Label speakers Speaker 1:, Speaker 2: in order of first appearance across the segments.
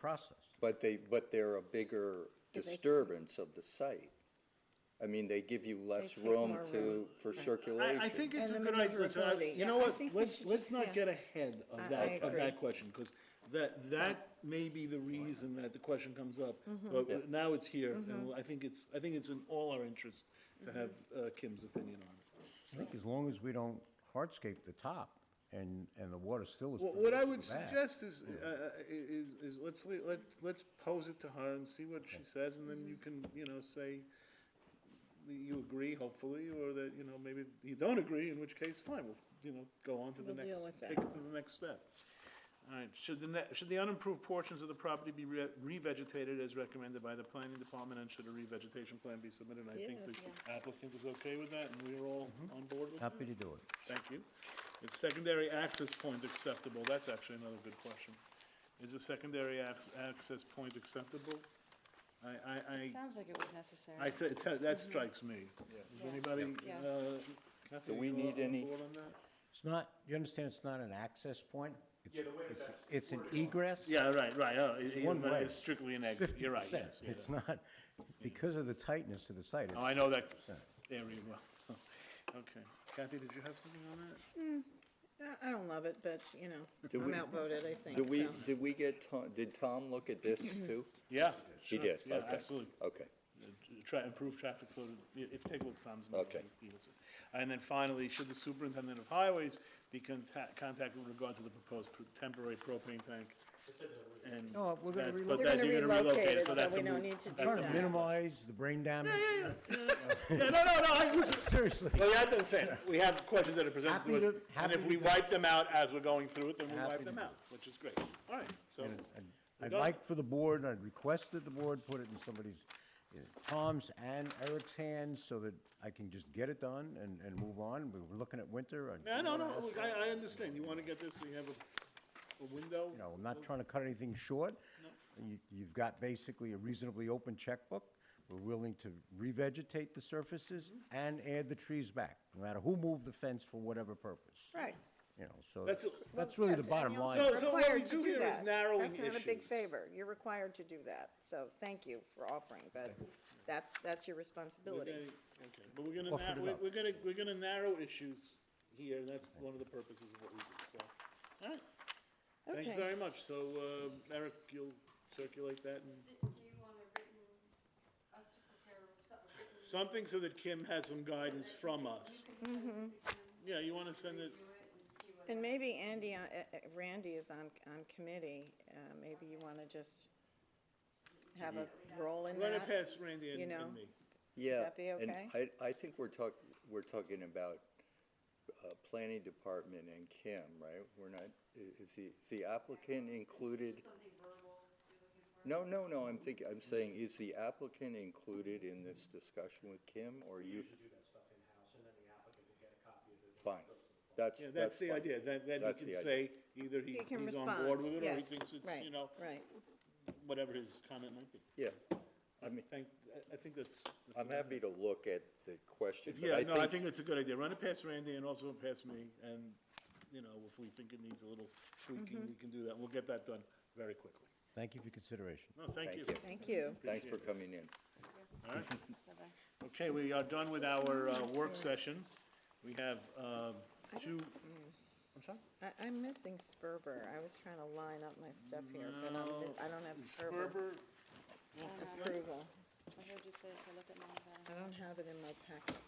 Speaker 1: process.
Speaker 2: But they, but they're a bigger
Speaker 3: Do they-
Speaker 2: disturbance of the site. I mean, they give you less
Speaker 3: take
Speaker 2: room
Speaker 3: more
Speaker 2: to,
Speaker 3: room.
Speaker 2: for
Speaker 4: I,
Speaker 2: circulation.
Speaker 4: I think it's a
Speaker 3: And
Speaker 4: good
Speaker 3: the
Speaker 4: idea, so, I-
Speaker 3: maneuverability.
Speaker 4: you know
Speaker 3: Yeah, I
Speaker 4: what,
Speaker 3: think we
Speaker 4: let's,
Speaker 3: should
Speaker 4: let's
Speaker 3: just-
Speaker 4: not
Speaker 3: yeah.
Speaker 4: get ahead of
Speaker 3: I- I
Speaker 4: that, of
Speaker 3: agree.
Speaker 4: that question, because that, that may be the reason that the question comes up,
Speaker 3: Mm-hmm.
Speaker 4: but now it's here, and I think it's, I think it's in all our interest
Speaker 3: Mm-hmm.
Speaker 4: to have uh, Kim's opinion on it.
Speaker 1: I think as long as we don't hardscape the top and, and the water still is.
Speaker 4: Wha- What I would suggest is, uh, uh, i- is, is let's, le- let, let's pose it to her and see what she says, and then you can, you know, say that you agree, hopefully, or that, you know, maybe you don't agree, in which case, fine, we'll, you know, go on to the
Speaker 3: We'll
Speaker 4: next,
Speaker 3: deal with
Speaker 4: take it to the next step. All right, should the, ne- should the unimproved portions of the property be re- revegetated as recommended by the planning department, and should a revegetation plan be submitted? And I think
Speaker 3: Yes.
Speaker 4: the applicant is okay with that, and we're all on board with that?
Speaker 1: Mm-hmm. Happy to do it.
Speaker 4: Thank you. Is secondary access point acceptable? That's actually another good question. Is a secondary ac- access point acceptable? I, I, I,
Speaker 5: Sounds like it was
Speaker 4: I,
Speaker 5: necessary.
Speaker 4: thi- that- that strikes me. Is anybody,
Speaker 5: Yeah.
Speaker 4: uh, Kathy,
Speaker 2: Do we
Speaker 4: you
Speaker 2: need
Speaker 4: on
Speaker 2: any-
Speaker 4: board on that?
Speaker 1: It's not, you understand it's not an access point? It's-
Speaker 4: Yeah, the way
Speaker 1: it's- It's
Speaker 4: that's
Speaker 1: an egress?
Speaker 4: Yeah, right, right, oh, it- it-
Speaker 1: one way.
Speaker 4: it's strictly an exit, you're right,
Speaker 1: 50%.
Speaker 4: yes, yeah.
Speaker 1: It's not, because of the tightness of the site.
Speaker 4: Oh, I know that area well. Okay. Kathy, did you have something on that?
Speaker 3: I- I don't love it, but, you know,
Speaker 2: we-
Speaker 3: I'm outvoted, I think,
Speaker 2: Did we,
Speaker 3: so.
Speaker 2: did we get, Tom- did Tom look at this too?
Speaker 4: Yeah,
Speaker 2: He
Speaker 4: sure,
Speaker 2: did,
Speaker 4: Yeah,
Speaker 2: okay.
Speaker 4: absolutely.
Speaker 2: Okay.
Speaker 4: uh, tra- improve traffic flow, to- i- if, take a look at Tom's. memo,
Speaker 2: Okay.
Speaker 4: he- he looks at- And then finally, should the superintendent of highways be contact, contacted with regard to the proposed pro- temporary propane tank? And
Speaker 1: No, we're gonna
Speaker 4: that's-
Speaker 1: relocate.
Speaker 4: but
Speaker 3: We're
Speaker 4: that-
Speaker 3: gonna
Speaker 4: you're
Speaker 3: relocate it,
Speaker 4: that's
Speaker 3: so
Speaker 4: a
Speaker 3: we don't
Speaker 4: move.
Speaker 3: need to do
Speaker 1: Trying to
Speaker 3: that.
Speaker 1: minimize the brain damage.
Speaker 4: Yeah, no, no, no, I, listen,
Speaker 1: Seriously.
Speaker 4: well, you have to understand, we have questions that are presented
Speaker 1: Happy
Speaker 4: to us,
Speaker 1: to-
Speaker 4: and
Speaker 1: happy
Speaker 4: if
Speaker 1: to
Speaker 4: we
Speaker 1: do-
Speaker 4: wipe them out as we're going through it, then we
Speaker 1: Happy
Speaker 4: wipe
Speaker 1: to
Speaker 4: them
Speaker 1: do
Speaker 4: out, which is great. All right, so,
Speaker 1: I'd-
Speaker 4: We're
Speaker 1: I'd
Speaker 4: done.
Speaker 1: like for the board, I'd request that the board put it in somebody's, uh, Tom's and Eric's hands so that I can just get it done and, and move on. We We're looking at winter. I-
Speaker 4: no, no, no, look, I, I understand, you wanna get this, so you have a, a window.
Speaker 1: You know, I'm not trying to cut anything short. You, you've got basically a reasonably open checkbook. We're willing to revegetate the surfaces
Speaker 3: Mm-hmm.
Speaker 1: and add the trees back, no matter who moved the fence for whatever purpose.
Speaker 3: Right.
Speaker 1: You know, so
Speaker 4: That's a-
Speaker 1: that's really the
Speaker 3: Yes, and
Speaker 1: bottom
Speaker 3: you're
Speaker 1: line.
Speaker 4: So- so what we
Speaker 3: required to
Speaker 4: do here is
Speaker 3: that.
Speaker 4: narrowing
Speaker 3: That's not a big
Speaker 4: issues.
Speaker 3: favor, you're required to do that, so thank you for offering, but that's, that's your responsibility.
Speaker 4: We're gonna- Okay, but we're gonna,
Speaker 1: Offered
Speaker 4: nar-
Speaker 1: it
Speaker 4: we're,
Speaker 1: up.
Speaker 4: we're gonna, we're gonna narrow issues here, and that's one of the purposes of what we do, so, alright. Thanks
Speaker 3: Okay.
Speaker 4: very much, so, uh, Eric, you'll circulate that and
Speaker 6: Do you want a written, us to prepare something written?
Speaker 4: something so that Kim has some guidance from us.
Speaker 3: Mm-hmm.
Speaker 4: Yeah, you wanna send it,
Speaker 3: And maybe Andy, uh, uh, Randy is on, on committee, uh, maybe you want to just have a role in
Speaker 4: run it
Speaker 3: that?
Speaker 4: past Randy and
Speaker 3: you
Speaker 4: and
Speaker 3: know.
Speaker 4: me.
Speaker 2: Yeah.
Speaker 3: that be okay?
Speaker 2: And I, I think we're talk, we're talking about, uh, planning department and Kim, right? We're not, i- is the, is the applicant included? No, no, no, I'm thinking, I'm saying, is the applicant included in this discussion with Kim, or you? Fine, that's,
Speaker 4: Yeah,
Speaker 2: that's
Speaker 4: that's
Speaker 2: fine.
Speaker 4: the idea, then, then
Speaker 2: That's
Speaker 4: he
Speaker 2: the
Speaker 4: can
Speaker 2: idea.
Speaker 4: say, either he,
Speaker 3: He can
Speaker 4: he's on
Speaker 3: respond,
Speaker 4: board with it, or he
Speaker 3: yes,
Speaker 4: thinks it's,
Speaker 3: right,
Speaker 4: you know,
Speaker 3: Right,
Speaker 4: whatever his comment might be.
Speaker 2: Yeah,
Speaker 4: I mean, thank, I, I think that's. that's
Speaker 2: I'm
Speaker 4: about it.
Speaker 2: happy to look at the question, but
Speaker 4: Yeah, no, I think it's a good idea. Run it past Randy and also past me, and, you know, if we think it needs a little tweaking,
Speaker 3: Mm-hmm.
Speaker 4: we can do that. We'll get that done very quickly.
Speaker 1: Thank you for your consideration.
Speaker 4: No, thank you.
Speaker 2: Thank you.
Speaker 3: thank
Speaker 2: Thanks
Speaker 3: you.
Speaker 2: for coming in.
Speaker 4: All right. Okay, we are done with our uh, work session. We have um, two, I'm sorry?
Speaker 3: I, I'm missing Sperber, I was trying to line up my stuff here, but I'm,
Speaker 4: No,
Speaker 3: I don't have Sperber
Speaker 4: Sperber.
Speaker 3: approval.
Speaker 5: I heard you say, so I looked at uh, mine, but
Speaker 3: I don't have it in my packet.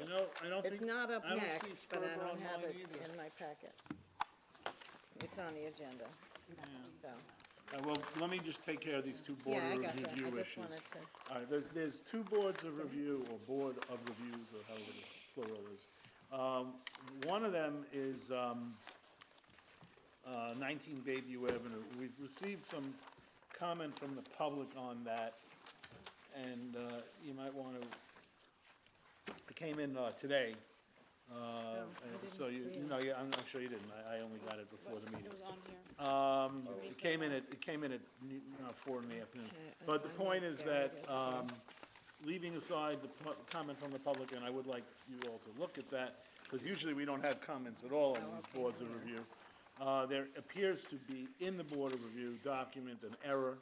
Speaker 4: You know, I don't think.
Speaker 3: It's not up
Speaker 4: I don't see
Speaker 3: next, but I
Speaker 4: Sperber
Speaker 3: don't have
Speaker 4: online
Speaker 3: it in
Speaker 4: either.
Speaker 3: my packet. It's on the agenda, so,
Speaker 4: Uh, Well, let me just take care of these two board
Speaker 3: yeah, I got that,
Speaker 4: review
Speaker 3: I just
Speaker 4: issues.
Speaker 3: wanted to.
Speaker 4: All right, there's, there's two boards of review, or board of reviews, or however the plural is. Um, One of them is um, uh, 19 Bayview Avenue. We've received some comment from the public on that, and uh, you might want to, it came in uh, today. uh,
Speaker 3: Oh,
Speaker 4: and
Speaker 3: I
Speaker 4: So
Speaker 3: didn't
Speaker 4: you,
Speaker 3: see it.
Speaker 4: no, yeah, I'm I'm sure you didn't. I I only got it before the meeting.
Speaker 5: it was on
Speaker 4: Um,
Speaker 5: here.
Speaker 4: it came in at, it came in at n- uh, four in the afternoon. But the point is that, um, leaving aside the pu- comment from the public, and I would like you all to look at that, because usually we don't have comments at all on these boards of review. Uh, There appears to be in the Board of Review document an error